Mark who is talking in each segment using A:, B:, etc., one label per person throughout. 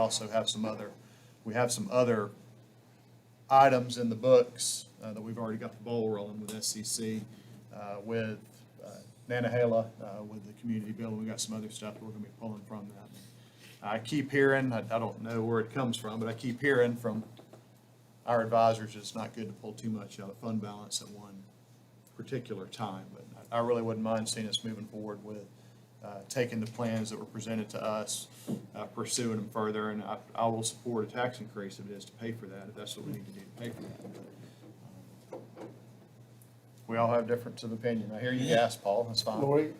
A: also have some other, we have some other items in the books uh, that we've already got the ball rolling with SCC, uh, with uh, Nanahala, uh, with the community building. We've got some other stuff that we're going to be pulling from that. I keep hearing, I I don't know where it comes from, but I keep hearing from our advisors, it's not good to pull too much out of fund balance at one particular time. But I I really wouldn't mind seeing us moving forward with uh, taking the plans that were presented to us, uh, pursuing them further, and I, I will support a tax increase if it is to pay for that, if that's what we need to do to pay for that. But, um, We all have difference of opinion. I hear you gasp, Paul, that's fine.
B: Lori,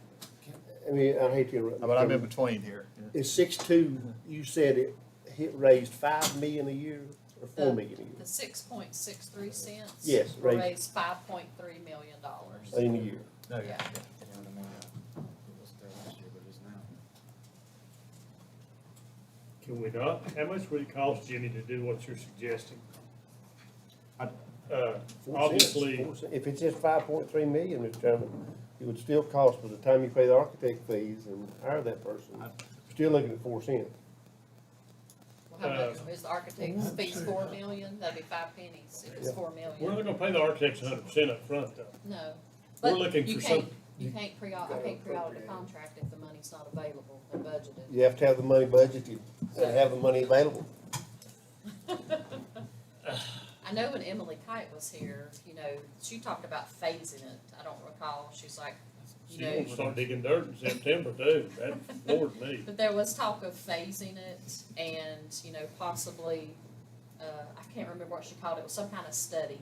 B: I mean, I hate to interrupt.
A: But I'm in between here. yeah.
B: Is six-two, you said it hit, raised five million a year or four
C: The-
B: million a year?
C: The six point six three cents.
B: Yes,
C: Will
B: raise-
C: raise five point three million dollars.
B: In a year.
D: No,
C: yeah, Yeah.
E: Can we not? How much would it cost, Jimmy, to do what you're suggesting?
A: I-
E: Uh,
B: Four cents,
E: obviously,
B: four cents. If it's just five point three million, Mr. Chairman, it would still cost by the time you pay the architect fees and hire that person, we're still looking at four cents.
C: How much
E: Uh,
C: is the architect's fees, four million, that'd be five pennies if it's four
E: we're not
C: million,
E: gonna pay the architects hundred percent up front, though.
C: no.
E: We're
C: But
E: looking
C: you
E: for
C: can't-
E: some-
C: You can't pre, I
B: gotta
C: can't pre-audit
B: appropriate
C: a
B: it.
C: contract if the money's not available and budgeted.
B: You have to have the money budgeted and have the money available.
C: I know when Emily Kite was here, you know, she talked about phasing it, I don't recall, she's like,
E: She
C: you know,
E: won't start digging dirt in September, too. That bored me.
C: But there was talk of phasing it and, you know, possibly, uh, I can't remember what she called it, it was some kind of study.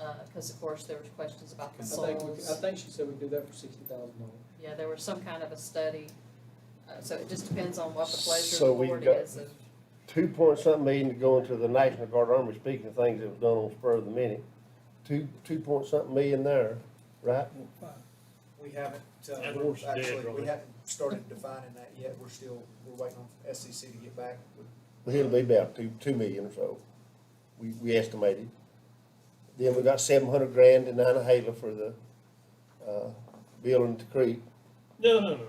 C: Uh, cause of course there was questions about the
F: I think, we- I
C: soils,
F: think she said we do that for sixty thousand dollars.
C: yeah, there was some kind of a study. Uh, so it just depends on what the pleasure of the
B: So we've
C: board
B: got-
C: is of,
B: Two point something million to go into the National Guard Army, speaking of things that was done on spur of the minute, two, two point something million there, right?
G: We haven't,
E: That
G: uh,
E: horse
G: we're
E: is dead,
G: actually,
E: Roy.
G: we haven't started defining that yet, we're still, we're waiting on SEC to get back with
B: Well, It'll be about two, two million or so, we, we estimated. Then we got seven hundred grand in Nanahala for the, uh, building at the creek.
E: No, no, no.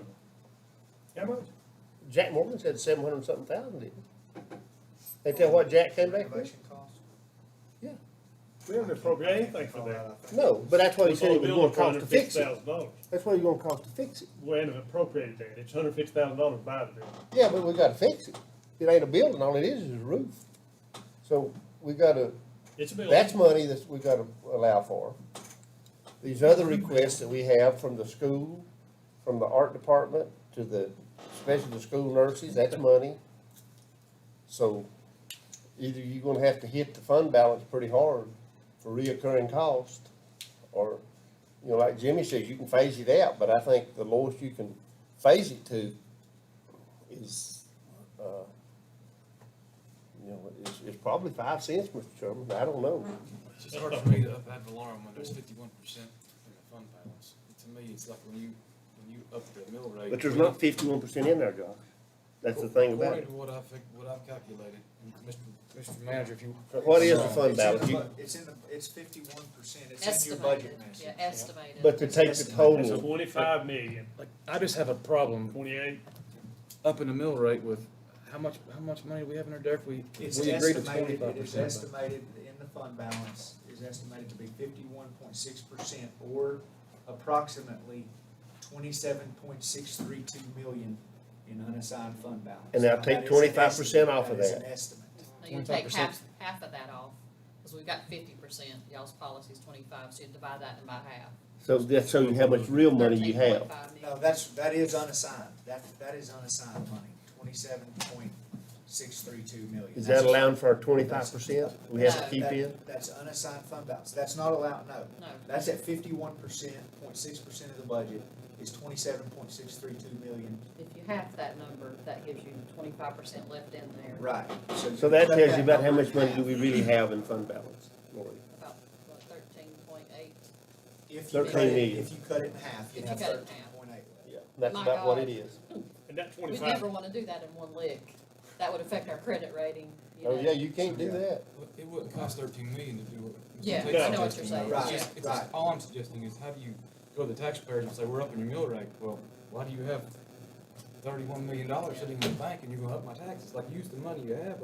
E: How much?
B: Jack Morgan said seven hundred and something thousand, didn't he? Ain't that what Jack came back with?
G: renovation costs.
E: We haven't appropriated anything for that.
B: No, but that's what he said it was gonna cost to fix it,
E: dollars.
B: that's what it was gonna cost to fix it.
E: We haven't appropriated that. It's hundred fifty thousand dollars by the building.
B: Yeah, but we gotta fix it, it ain't a building, all it is is a roof. So, we gotta
E: It's a building.
B: That's money that we gotta allow for. These other requests that we have from the school, from the art department to the, especially the school nurses, that's money. So either you're gonna have to hit the fund balance pretty hard for reoccurring cost, or, you know, like Jimmy says, you can phase it out, but I think the lowest you can phase it to is, uh, you know, it's, it's probably five cents, Mr. Chairman, I don't know.
H: It's just hard for me to up ad valorem when there's fifty-one percent in the fund balance. To me, it's like when you, when you up the mill rate.
B: But there's not fifty-one percent in there, Josh. That's the thing about
H: According
B: it.
H: to what I've, what I've calculated, and Mr. Mr. Manager, if you.
B: What is the
H: Sorry.
B: fund
G: Uh, It's
B: balance?
G: in the
B: You-
G: bu- It's in the, it's fifty-one percent, it's in your
C: estimated,
G: budget, Nancy.
C: yeah, estimated.
B: But to take the total,
E: Twenty-five million,
H: Like, I just have a problem
E: twenty-eight.
H: upping the mill rate with how much, how much money do we have in our debt? We,
G: It's
H: we agreed to
G: estimated,
H: twenty-five
G: it is
H: percent.
G: estimated in the fund balance, is estimated to be fifty-one point six percent or approximately twenty-seven point six three two million in unassigned fund balance.
B: And now
G: Now,
B: take
G: that is an
B: 25%
G: estimate.
B: off of
G: is
B: that.
G: an estimate.
C: Now, You take
H: 25%.
C: half, half of that off, cause we've got fifty percent, y'all's policy's twenty-five, so you divide that in by half.
B: so that shows you how much real money you have.
C: 13.5 million.
G: No, that's, that is unassigned, that, that is unassigned money, twenty-seven point six three two million.
B: Is
G: That's-
B: that allowing for our twenty-five percent we have to keep
G: that-
B: in?
G: That's unassigned fund balance, that's not allowed, no.
C: No,
G: That's at fifty-one percent, point six percent of the budget is twenty-seven point six three two million.
C: if you half that number, that gives you twenty-five percent left in there.
G: Right.
B: So that
G: cut
B: tells you about how
G: number
B: much money
G: in
B: do we really have in fund balance, Lori?
C: About thirteen point eight.
G: half. If you cut
B: 13
G: it,
B: million.
G: if you cut it in half, you
C: If you
G: have
C: cut it in
G: thirteen
C: half.
G: point eight.
B: Yeah, that's
C: My
B: about what
C: God.
B: it is.
E: And that
C: We
E: twenty-five
C: never wanna do that in one lick. That would affect our credit rating, you know.
B: Oh, yeah, you can't do that.
H: It wouldn't cost thirteen million to do what.
C: Yeah,
H: Tate's
E: I know
C: what you're saying.
H: suggesting. It's
G: Right,
H: just- it's just-
G: right.
H: All I'm suggesting is how do you go to the taxpayers and say, we're upping your mill rate? Well, why do you have thirty-one million dollars sitting in the bank and you're gonna up my taxes, like, use the money you have